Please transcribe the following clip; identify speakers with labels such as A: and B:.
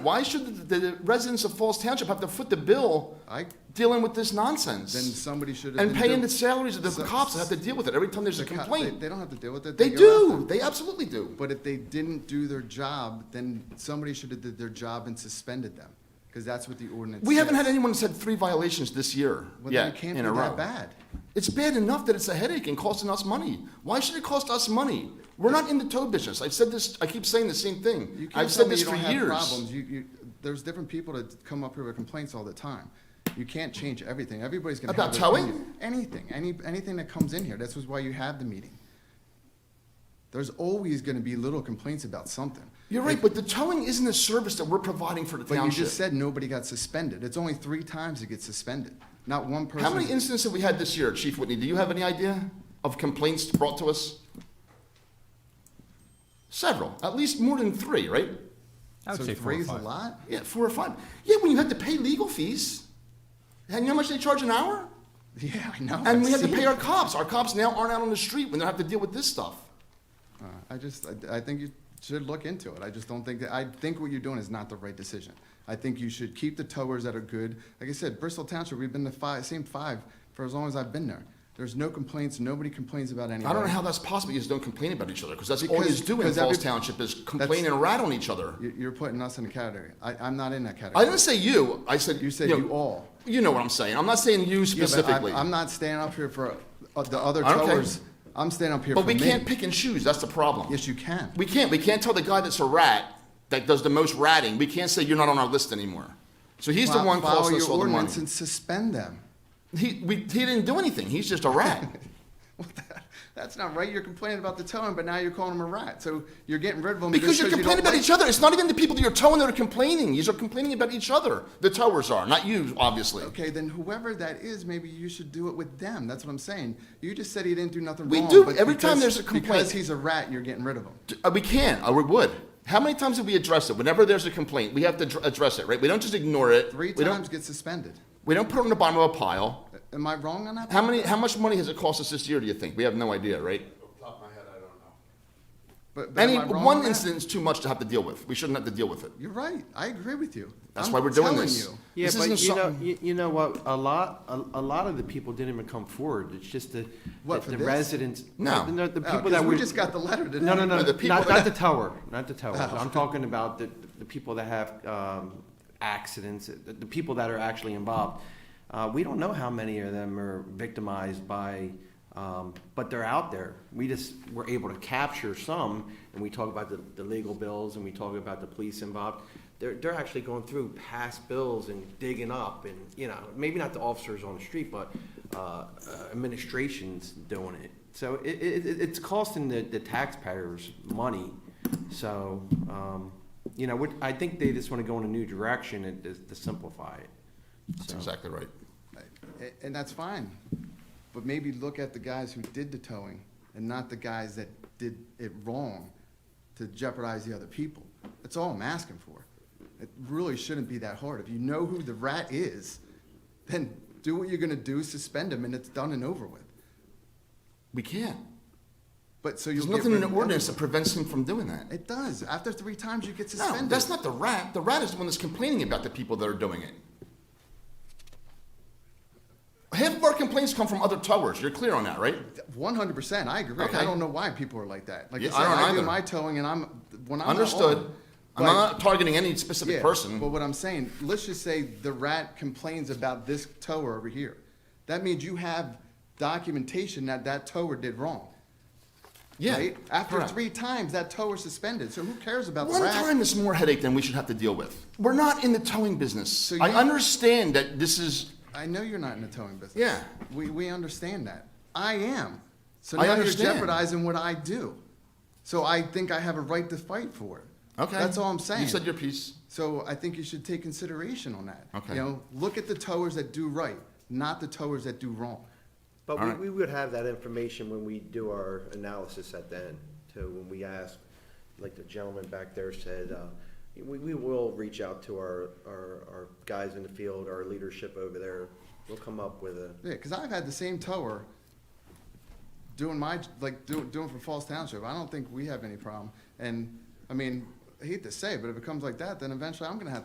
A: Why should the, the residents of Falls Township have to foot the bill
B: I,
A: dealing with this
B: then
A: nonsense?
B: somebody should have.
A: And
B: been
A: paying
B: do-
A: the salaries of the
B: So-
A: cops that have to deal with it every time there's a
B: the co- they-
A: complaint.
B: They don't have to deal with it.
A: They
B: go after
A: do,
B: it.
A: they absolutely do.
B: But if they didn't do their job, then somebody should have did their job and suspended them, because that's what the ordinance
A: We haven't had
B: says.
A: anyone that's had three violations this year
B: Well, then it
A: yet,
B: can't
A: in
B: be
A: a row.
B: that bad.
A: It's bad enough that it's a headache and costing us money. Why should it cost us money? We're not in the tow business. I've said this, I keep saying the same
B: You
A: thing.
B: can't
A: I've
B: tell
A: said
B: me
A: this
B: you
A: for
B: don't have
A: years.
B: problems. You, you, there's different people that come up here with complaints all the time. You can't change everything. Everybody's gonna
A: About
B: have. their
A: towing?
B: opinion. Anything, any, anything that comes in here. This is why you have the meeting. There's always gonna be little complaints about something.
A: You're right, but the towing isn't a service that we're providing for the
B: But you just
A: township.
B: said nobody got suspended. It's only three times it gets suspended. Not one person.
A: How many incidents have we had this year, Chief Whitney? Do you have any idea of complaints brought to us? Several, at least more than three, right?
C: I would
B: So
C: say four or
B: three is a
C: five.
B: lot?
A: Yeah, four or five. Yeah, when you had to pay legal fees, and you know how much they charge an hour?
B: Yeah, I know.
A: And
B: I've
A: we had to
B: seen
A: pay
B: it.
A: our cops. Our cops now aren't out on the street when they have to deal with this stuff.
B: Uh, I just, I, I think you should look into it. I just don't think that, I think what you're doing is not the right decision. I think you should keep the towers that are good. Like I said, Bristol Township, we've been the five, same five for as long as I've been there. There's no complaints. Nobody complains about anything.
A: I don't know how that's possible. You just don't complain about each other because that's all
B: Because-
A: you just do in
B: because
A: Falls
B: every-
A: Township is complain and rat on each other.
B: You, you're putting us in a category. I, I'm not in that
A: I
B: category.
A: didn't say you. I said
B: You said
A: know,
B: you all.
A: You know what I'm saying. I'm not saying you
B: Yeah, but I'm-
A: specifically.
B: I'm not standing up here for uh, the other
A: I don't care.
B: towers. I'm standing up here for
A: but
B: me.
A: we can't pick and choose. That's the problem.
B: Yes, you can.
A: We can't. We can't tell the guy that's a rat that does the most ratting. We can't say you're not on our list anymore. So he's the
B: Fo-
A: one
B: follow
A: costing us
B: your
A: all the money.
B: ordinance And suspend them.
A: He, we, he didn't do anything. He's just a rat.
B: What the- That's not right. You're complaining about the towing, but now you're calling them a rat. So you're getting rid of them
A: Because
B: just
A: you're
B: you
A: complaining
B: don't
A: about
B: like-
A: each other. It's not even the people that you're towing that are complaining. You're complaining about each other. The towers are, not you, obviously.
B: Okay, then whoever that is, maybe you should do it with them. That's what I'm saying. You just said he didn't do nothing
A: We
B: wrong.
A: do.
B: but
A: Every time
B: because-
A: there's a complaint-
B: Because he's a rat, you're getting rid of him.
A: Uh, We can. Uh, we would. How many times have we addressed it? Whenever there's a complaint, we have to dr- address it, right? We don't just ignore it.
B: Three
A: we
B: times
A: Don't,
B: get suspended.
A: we don't put it on the bottom of a pile.
B: Am I wrong on that?
A: How many? How much money has it cost us this year? Do you think? We have no idea, right?
B: But- but am
A: Any
B: I wrong on
A: one
B: that?
A: incident's too much to have to deal with. We shouldn't have to deal with it.
B: You're right. I agree with you.
A: That's
B: I'm
A: why we're doing
B: telling
A: this.
B: you.
D: Yeah,
A: This isn't
D: but you know,
A: something-
D: you, you know what, a lot, a, a lot of the people didn't even come forward, it's just the,
B: What,
D: the-
B: for
D: the
B: this?
D: residents.
A: No.
D: The the
B: No,
D: people
B: 'cause
D: that
B: we
D: were.
B: just got the letter today.
D: No, no, no,
A: No, the people
D: not, not the tower, not the tower,
B: Oh.
D: I'm talking about the, the people that have, um, accidents, the, the people that are actually involved. Uh, we don't know how many of them are victimized by, um, but they're out there, we just were able to capture some, and we talk about the, the legal bills, and we talk about the police involved. They're, they're actually going through past bills and digging up, and, you know, maybe not the officers on the street, but, uh, uh, administration's doing it. So it, it, it- it's costing the, the taxpayers money, so, um, you know, what- I think they just wanna go in a new direction and to to simplify it.
A: That's
D: So-
A: exactly right.
B: A- And that's fine, but maybe look at the guys who did the towing and not the guys that did it wrong to jeopardize the other people. That's all I'm asking for. It really shouldn't be that hard. If you know who the rat is, then do what you're gonna do, suspend him, and it's done and over with.
A: We can't.
B: But, so you'll
A: There's nothing
B: get
A: in
B: rid
A: the
B: of
A: ordinance that prevents him from doing that.
B: everyone. It does. After three times, you get
A: No,
B: suspended.
A: that's not the rat. The rat is the one that's complaining about the people that are doing it. Half of our complaints come from other towers. You're clear on that, right?
B: One hundred percent, I agree.
A: Okay.
B: I don't know why people are like that. Like I
A: Yeah,
B: said,
A: I don't
B: I do
A: either.
B: my towing and I'm, when I'm not on,
A: Understood. I'm
B: but-
A: not targeting any specific person.
B: But what I'm saying, let's just say the rat complains about this tower over here. That means you have documentation that that tower did wrong.
A: yeah.
B: right? After
A: correct.
B: three times, that tower suspended. So who cares about
A: One
B: the rat?
A: time is more headache than we should have to deal with. We're not in the towing business.
B: you-
A: I understand that this is.
B: I know you're not in the towing business.
A: Yeah.
B: We, we understand that. I am. So
A: I
B: now you're
A: understand.
B: jeopardizing what I do. So I think I have a right to fight for it.
A: Okay.
B: That's all I'm saying.
A: You said your piece.
B: So I think you should take consideration on that.
A: Okay.
B: You know, look at the towers that do right, not the towers that do wrong.
D: But
A: All
D: we,
A: right.
D: we would have that information when we do our analysis at the end, too, when we ask, like the gentleman back there said, uh, we, we will reach out to our, our, our guys in the field, our leadership over there, we'll come up with a,
B: Yeah, because I've had the same tower doing my, like, do, doing for Falls Township. I don't think we have any problem. And, I mean, I hate to say, it, but if it comes like that, then eventually I'm gonna have